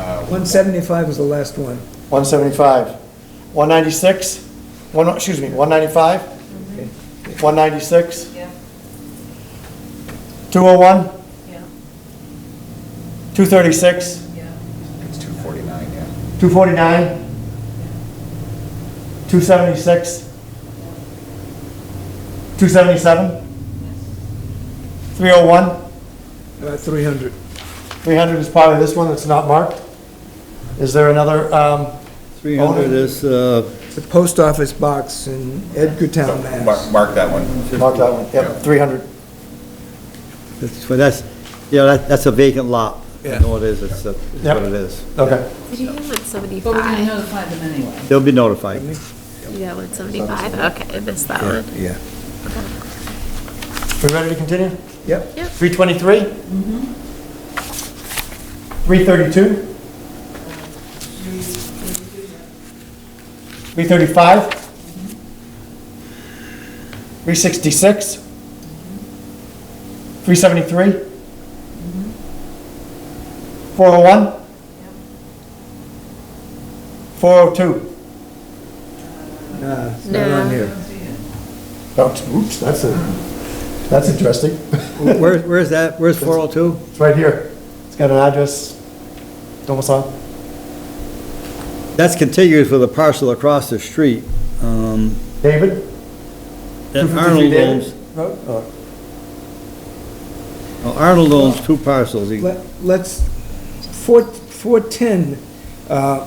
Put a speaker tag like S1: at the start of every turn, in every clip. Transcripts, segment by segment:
S1: Uh,
S2: One seventy-five was the last one.
S3: 175, 196, one, excuse me, 195, 196,
S4: Mm-hmm. Yeah,
S3: 201,
S4: yeah,
S3: 236,
S4: yeah.
S1: It's two forty-nine, yeah.
S3: 249, 276, 277, 301,
S2: About Uh, three hundred.
S3: 300 is probably this one that's not marked. Is there another, um,
S5: 300 is, uh,
S2: The post office box in Edgartown,
S1: So,
S2: Mass.
S1: Mark, mark that one.
S3: mark that one,
S1: Yeah.
S3: yep, 300.
S5: that's- but that's, yeah, that- that's a vacant lot. I know it is, it's a- it's
S3: Yep.
S5: what it is.
S3: Okay,
S6: Did you get 175?
S4: But we didn't notify them anyway.
S5: They'll be notified.
S6: You got 175? Okay, I missed that one.
S2: Yeah.
S3: we ready to continue?
S2: Yep,
S3: 323? 332? 335? 366? 373? 401? 402?
S2: nah, it's not on
S6: No.
S2: here.
S3: Oh, Oops, that's a, that's interesting.
S5: Where, where's that, where's 402?
S3: It's right here. It's got an address, domicile.
S5: That's contiguous with a parcel across the street. um,
S3: David?
S5: that
S3: 253
S5: Arnold
S3: David
S5: owns,
S3: Road? Oh.
S5: well, Arnold owns two parcels. He-
S2: Let- Let's, four, four-ten, uh,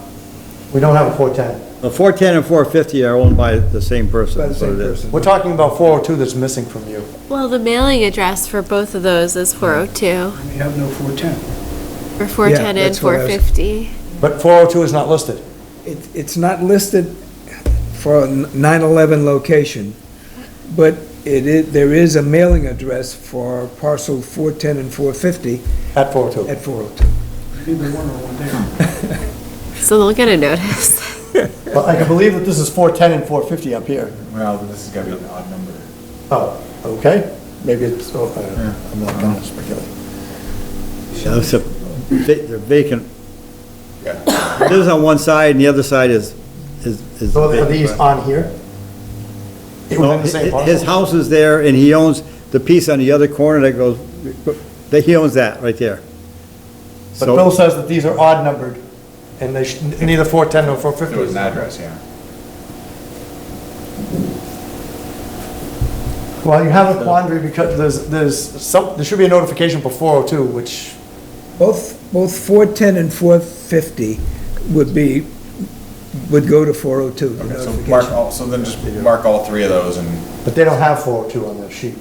S3: We don't have a 410.
S5: uh, 410 and 450 are owned by the same person.
S2: by the
S5: is what
S2: same
S5: it is.
S2: person.
S3: We're talking about 402 that's missing from you.
S6: Well, the mailing address for both of those is 402,
S7: We have no 410.
S6: or 410 and
S2: that's what I was-
S6: 450.
S3: But 402 is not listed.
S2: It, it's not listed for a 9/11 location, but it is, there is a mailing address for parcel 410 and 450
S3: At 402.
S2: at 402.
S7: Neither one are one there.
S6: So they'll get a notice.
S3: Well, I can believe that this is 410 and 450 up here.
S1: Well, this is gonna be an odd number.
S3: Oh, okay. Maybe it's, oh, I don't know. I'm not going to speculate.
S5: Yeah, it's a va- they're vacant.
S1: Yeah.
S5: This is on one side and the other side is, is. is
S3: So are
S5: vacant,
S3: these
S5: but-
S3: on here?
S5: No,
S3: Within the same
S5: hi- His
S3: parcel?
S5: house is there, and he owns the piece on the other corner that goes, that he owns that, right there.
S3: But
S5: So,
S3: Bill says that these are odd numbered and they should, neither 410 nor
S1: It was an
S3: 450.
S1: address, yeah.
S3: Well, you have a quandary because there's, there's some, there should be a notification for 402, which
S2: Both, both 410 and 450 would be, would go to 402, the
S1: Okay, so mark
S2: notification.
S1: all, so then just mark all three of those and,
S3: But they don't have 402 on their sheet.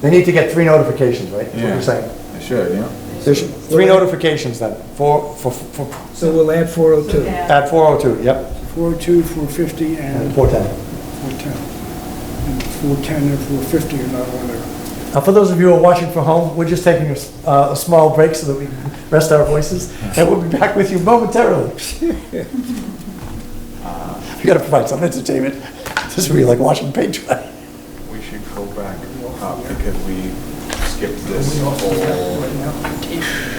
S3: They need to get three notifications, right? That's what
S1: Yeah.
S3: you're saying.
S1: I should, yeah.
S3: There should- Three notifications then, four, for, for,
S2: So we'll add 402.
S3: at 402, yep,
S7: 402, 450,
S3: and
S7: and
S3: 410.
S7: 410. And 410 and 450 are not on there.
S3: Now, for those of you who are watching from home, we're just taking a, s- uh, a small break so that we can rest our voices, and we'll be back with you momentarily. We gotta provide some entertainment. This will be like watching paint dry.
S1: We should go back up Uh, because we skipped this whole.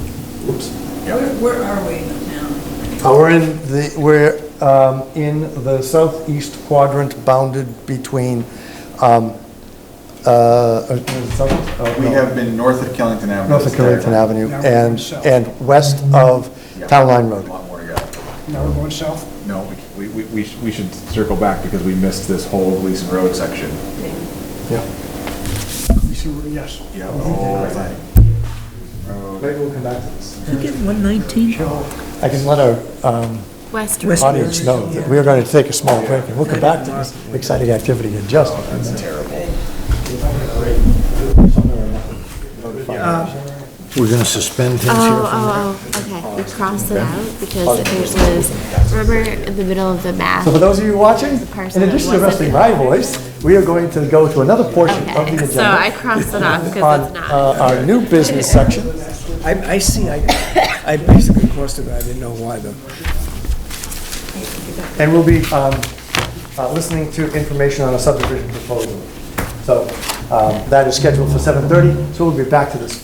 S4: Where, where are we now?
S3: Uh, We're in the, we're um, in the southeast quadrant bounded between, um, uh, uh, south- oh,
S1: We
S3: no,
S1: have been north of Killington Avenue.
S3: north of Carrington Avenue
S7: Now we're
S3: and,
S7: south.
S3: and west of
S1: Yeah.
S3: Town Line
S1: A
S3: Road.
S1: lot more to go.
S7: Now we're going south?
S1: No, we, we, we, sh- we should circle back because we missed this whole Gleason Road section.
S3: Yeah.
S7: You see where- Yes.
S1: Yeah, the whole thing.
S3: Maybe we'll come back to this.
S2: Did you get 119?
S3: I can let our um,
S6: West.
S3: audience know that we are going to take a small break and we'll come back to this exciting activity in just. That's terrible.
S8: We're going to suspend
S6: Oh,
S8: things
S3: Uh,
S8: here.
S6: oh, oh, okay, we crossed it out because it was, remember in the middle of the map?
S3: So for those of you watching, in
S6: person
S3: addition to resting
S6: wasn't-
S3: my voice, we are going to go to another portion of the agenda.
S6: Okay, so I crossed it off because
S3: on
S6: it's
S3: uh,
S6: not.
S3: our new business section.
S2: I, I see, I, I basically crossed it, out. I didn't know why though.
S3: And we'll be um, uh, listening to information on a subdivision proposal. So um, that is scheduled for 7:30, so we'll be back to this